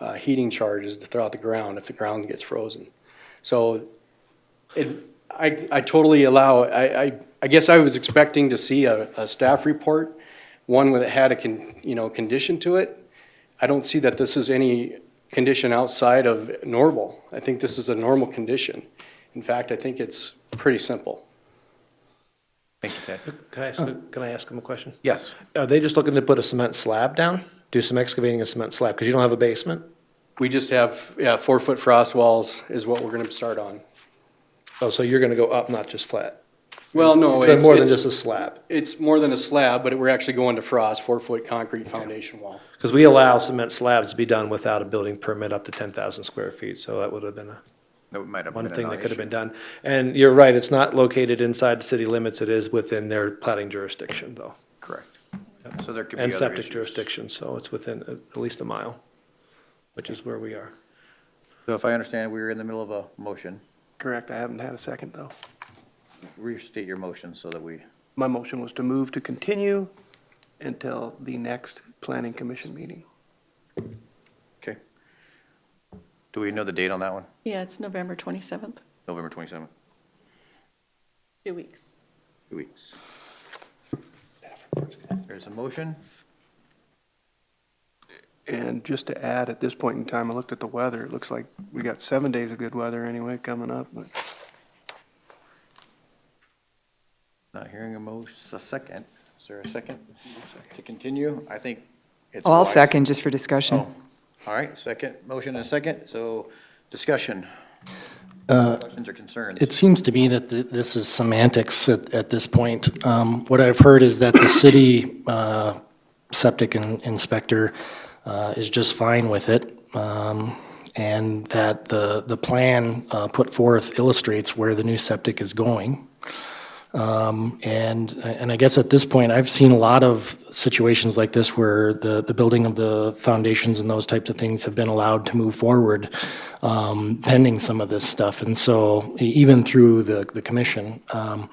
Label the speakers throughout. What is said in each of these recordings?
Speaker 1: uh, heating charges throughout the ground if the ground gets frozen. So it, I, I totally allow, I, I, I guess I was expecting to see a, a staff report, one that had a con, you know, condition to it. I don't see that this is any condition outside of normal. I think this is a normal condition. In fact, I think it's pretty simple.
Speaker 2: Thank you, Ted.
Speaker 3: Can I ask, can I ask them a question?
Speaker 2: Yes.
Speaker 3: Are Uh, they just looking to put a cement slab down? Do some excavating and cement slab, because you don't have a basement?
Speaker 1: We just have, yeah, four-foot frost walls is what we're gonna start on.
Speaker 3: Oh, so you're gonna go up, not just flat?
Speaker 1: Well, no,
Speaker 3: Then
Speaker 1: it's,
Speaker 3: more than
Speaker 1: it's,
Speaker 3: just a slab?
Speaker 1: it's more than a slab, but we're actually going to frost, four-foot concrete foundation wall.
Speaker 3: Because we allow cement slabs to be done without a building permit up to ten thousand square feet, so that would have been a,
Speaker 2: That might have been
Speaker 3: one thing that could have
Speaker 2: another
Speaker 3: been done. And you're right, it's not located inside the city limits, it is within their plating jurisdiction, though.
Speaker 2: issue. Correct. So there could be
Speaker 3: And
Speaker 2: other
Speaker 3: septic
Speaker 2: issues.
Speaker 3: jurisdiction, so it's within uh, at at least a mile, which is where we are.
Speaker 2: So if I understand, we were in the middle of a motion.
Speaker 4: Correct, I haven't had a second, though.
Speaker 2: Restate your motion so that we,
Speaker 4: My motion was to move to continue until the next planning commission meeting.
Speaker 2: okay. Do we know the date on that one?
Speaker 5: Yeah, it's November 27th,
Speaker 2: November 27th,
Speaker 5: two weeks.
Speaker 2: two weeks. There's a motion.
Speaker 4: And just to add, at this point in time, I looked at the weather, it looks like we got seven days of good weather anyway coming up, but
Speaker 2: Not hearing a motion, a second. Is there a second to continue? I think it's.
Speaker 6: Well, I'll
Speaker 2: wise-
Speaker 6: second, just for
Speaker 3: Oh.
Speaker 6: discussion.
Speaker 2: All right, second, motion and a second. So discussion.
Speaker 6: Uh,
Speaker 2: Questions or concerns?
Speaker 7: It seems to me that th- this is semantics at, at this point. Um, What I've heard is that the city uh, septic in- inspector uh, is just fine with it, um, and that the, the plan uh, put forth illustrates where the new septic is going. And, and I guess at this point, I've seen a lot of situations like this where the, the building of the foundations and those types of things have been allowed to move forward um, pending some of this stuff. And so e- even through the, the commission. Um,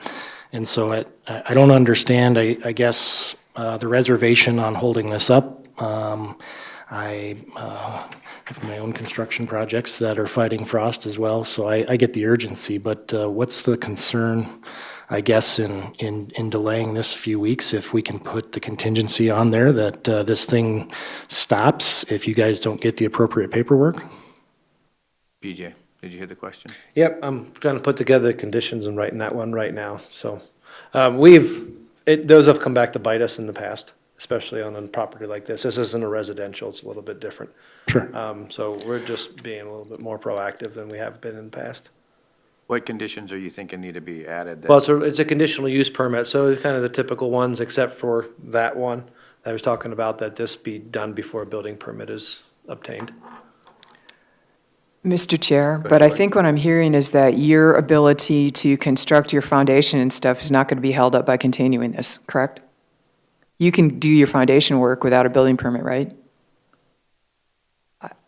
Speaker 7: And so I, I I don't understand, I, I guess, uh, the reservation on holding this up. Um, I uh, have my own construction projects that are fighting frost as well, so I, I get the urgency. But uh, what's the concern, I guess, in, in, in delaying this a few weeks? If we can put the contingency on there that uh, this thing stops if you guys don't get the appropriate paperwork?
Speaker 2: BJ, did you hear the question?
Speaker 3: Yep, I'm trying to put together the conditions and writing that one right now, so. Um, we've, it, those have come back to bite us in the past, especially on a property like this. This isn't a residential, it's a little bit different.
Speaker 7: Sure.
Speaker 3: Um, so we're just being a little bit more proactive than we have been in the past.
Speaker 2: What conditions are you thinking need to be added? that-
Speaker 3: Well, it's a, it's a conditional use permit, so it's kind of the typical ones, except for that one I was talking about, that this be done before a building permit is obtained.
Speaker 6: Mr. Chair, but I think what I'm hearing is that your ability to construct your foundation and stuff is not going to be held up by continuing this, correct? You can do your foundation work without a building permit, right?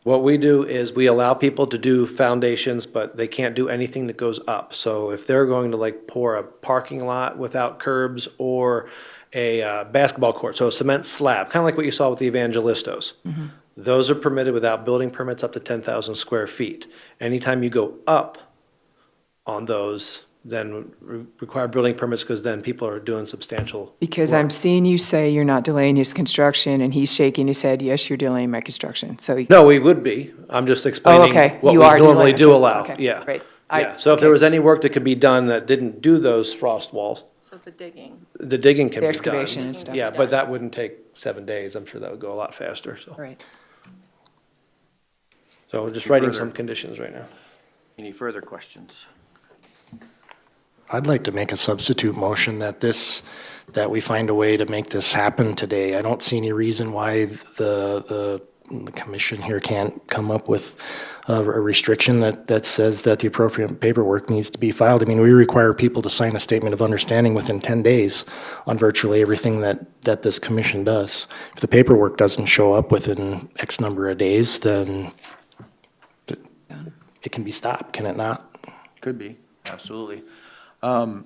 Speaker 3: What we do is we allow people to do foundations, but they can't do anything that goes up. So if they're going to like pour a parking lot without curbs or a uh, basketball court, so a cement slab, kind of like what you saw with the Evangelistos.
Speaker 6: Mm-hmm.
Speaker 3: Those are permitted without building permits up to 10,000 square feet. Anytime you go up on those, then re- require building permits because then people are doing substantial.
Speaker 6: Because I'm seeing you say you're not delaying his construction, and he's shaking his head, yes, you're delaying my construction, so. he-
Speaker 3: No, we would be. I'm just
Speaker 6: Oh,
Speaker 3: explaining
Speaker 6: okay,
Speaker 3: what we
Speaker 6: you are
Speaker 3: normally
Speaker 6: delaying.
Speaker 3: do allow,
Speaker 6: Okay,
Speaker 3: yeah.
Speaker 6: Great. I-
Speaker 3: Yeah, so if there was any work that could be done that didn't do those frost walls,
Speaker 5: So the digging.
Speaker 3: the digging can be
Speaker 6: The
Speaker 3: done.
Speaker 6: excavation and stuff.
Speaker 3: Yeah, but that wouldn't take seven days. I'm sure that would go a lot faster, so.
Speaker 6: Right.
Speaker 3: So we're just writing some conditions right now.
Speaker 2: Any further questions?
Speaker 7: I'd like to make a substitute motion that this, that we find a way to make this happen today. I don't see any reason why the, the, the commission here can't come up with a a restriction that, that says that the appropriate paperwork needs to be filed. I mean, we require people to sign a statement of understanding within 10 days on virtually everything that, that this commission does. If the paperwork doesn't show up within X number of days, then it- it can be stopped, can it not?
Speaker 2: Could be, absolutely. Um,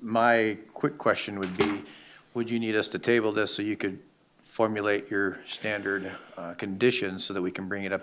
Speaker 2: My quick question would be, would you need us to table this so you could formulate your standard uh, conditions so that we can bring it up at